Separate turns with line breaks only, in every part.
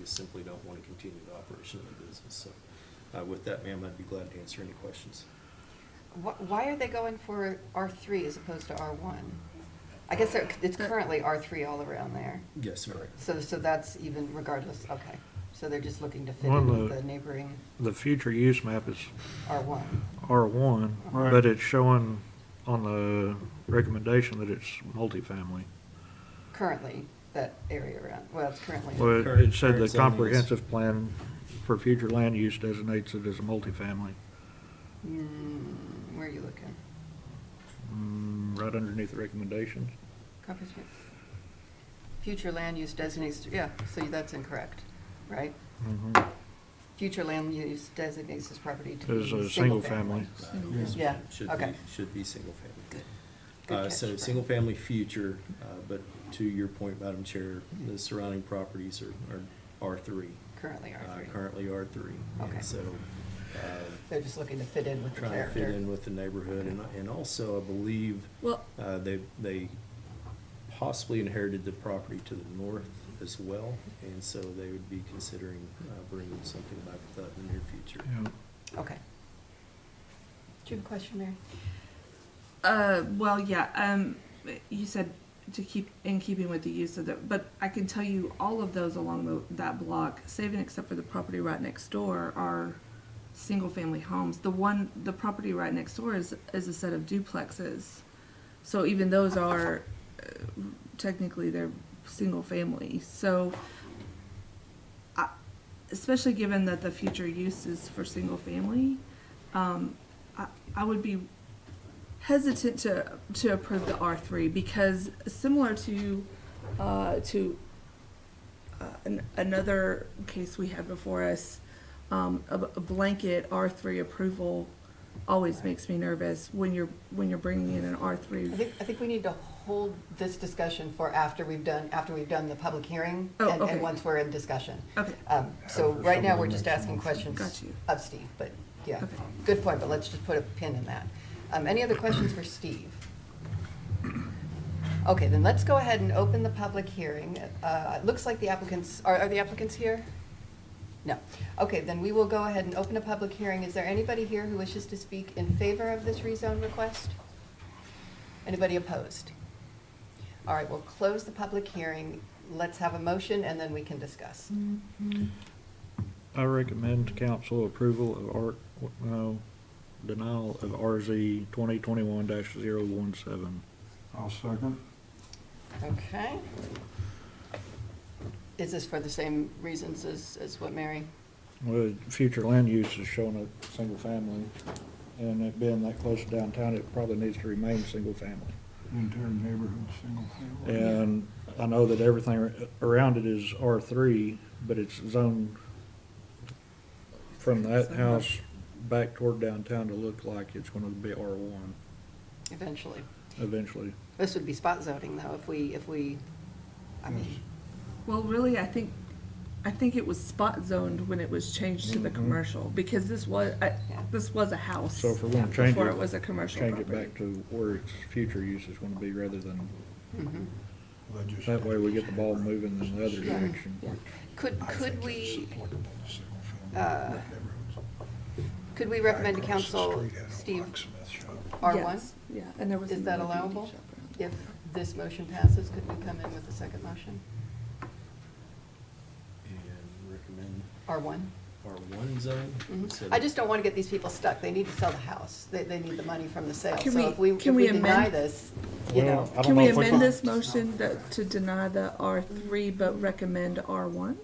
just simply don't want to continue the operation of the business. So uh, with that, ma'am, I'd be glad to answer any questions.
Wh- Why are they going for R3 as opposed to R1? I guess they're- it's currently R3 all around there.
Yes, ma'am.
So, so that's even regardless, okay. So they're just looking to fit
Well,
in with
the-
the neighboring
The future use map is
R1.
R1,
Right.
but it's showing on the recommendation that it's multifamily.
Currently, that area around, well, it's currently.
Well, it-
Current-
it said
current
the
zoning is-
comprehensive plan for future land use designates it as a multifamily,
Mm, Where are you looking?
Mm, right underneath the recommendations.
Comprehensive- Future land use designates, yeah, so that's incorrect, right?
Mhm.
Future land use designates this property to be
As a single family.
mm-hmm. Yeah,
Uh, Should
okay.
be, should be single family.
Good
Uh,
catch,
So,
Brad.
single-family future, uh, but to your point, Madam Chair,
Mm-hmm.
the surrounding properties are are R3.
Currently
uh,
R3.
Currently R3. And
Okay.
So, uh,
They're just looking to fit in with the
trying to
character.
fit in with the neighborhood, and and also, I believe,
Well,
uh, they they possibly inherited the property to the north as well, and so they would be considering uh, bringing something back to that in the near future.
Yeah.
Okay. Do you have a question, Mary?
uh, well, yeah. Um, you said to keep in keeping with the use of the, but I can tell you all of those along the, that block, saving except for the property right next door, are single-family homes. The one, the property right next door is is a set of duplexes. So even those are uh, technically they're single family. So I- especially given that the future use is for single family, um, I, I would be hesitant to to approve the R three because similar to uh, to uh, an, another case we had before us, um, a, a blanket R three approval always makes me nervous when you're when you're bringing in an R three.
I think, I think we need to hold this discussion for after we've done, after we've done the public hearing.
Oh,
and-
okay.
And once we're in discussion.
Okay,
Um, So right now, we're just asking
got
questions
you.
of Steve, but yeah,
Okay.
good point, but let's just put a pin in that. Um, Any other questions for Steve? Okay, then let's go ahead and open the public hearing. Uh, It looks like the applicants, are are the applicants here? No. Okay, then we will go ahead and open a public hearing. Is there anybody here who wishes to speak in favor of this rezone request? Anybody opposed? All right, we'll close the public hearing. Let's have a motion, and then we can discuss.
I recommend council approval of R, no, denial of RZ 2021-017.
I'll second.
Okay. Is this for the same reasons as, as what Mary?
Well, future land use is showing a single family, and it being that close to downtown, it probably needs to remain single family.
The entire neighborhood, single family.
And I know that everything around it is R three, but it's zoned from that house back toward downtown to look like it's gonna be R one
Eventually.
eventually.
This would be spot zoning, though, if we, if we, I mean,
well, really, I think, I think it was spot zoned when it was changed to the
Mhm.
commercial, because this was, I,
Yeah.
this was a house.
So if we're gonna change
Before
it,
it was a commercial
Change
property.
it back to where its future use is gonna be rather than,
mhm.
Well, that just-
that way we get the ball moving in the other
Yeah.
direction.
Yeah.
could,
I think
could
it's
we,
applicable to single family
uh,
neighborhoods.
could we recommend to
Across the
council,
street had a
Steve,
locksmith shop.
R1?
Yes, Yeah, and there was.
Is that
another beauty
allowable?
shop around
If this motion passes, could we come in with a second motion?
And recommend
R1?
R1 zone.
Mhm.
instead
I
of-
just don't want to get these people stuck. They need to sell the house. They, they need the money from the sale.
Can
So
we-
if we, if
can
we
we
deny
amend-
this, you
Well,
know,
I don't
Can
know
we
if
amend this motion that, to deny the R three but recommend R one?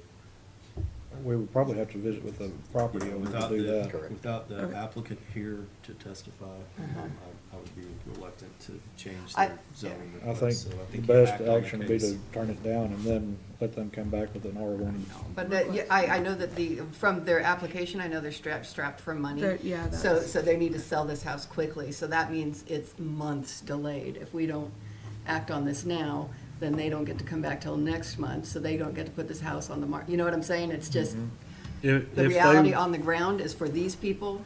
We would probably have to visit with the property owner to
Without
do
the-
that.
Without the
Okay.
applicant here to testify,
Uh-huh.
um, I I would be reluctant to change
I-
the zoning
I
request.
think
so
the
you
best
act on the
action would be
case.
to turn it down and then let them come back with an R one.
But that, yeah, I, I know that the, from their application, I know they're strapped, strapped for money.
They're- yeah,
So,
that's-
so they need to sell this house quickly, so that means it's months delayed. If we don't act on this now, then they don't get to come back till next month, so they don't get to put this house on the market. You know what I'm saying? It's just,
Mm-hmm. If,
the
if
reality
they,
on the ground is for these people,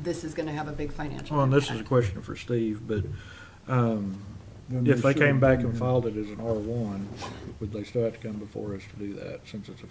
this is gonna have a big financial
well, and
impact.
this is a question for Steve, but, um,
Then
if they
should-
came back and filed it as an R one, would they still have to come before us to do that, since it's a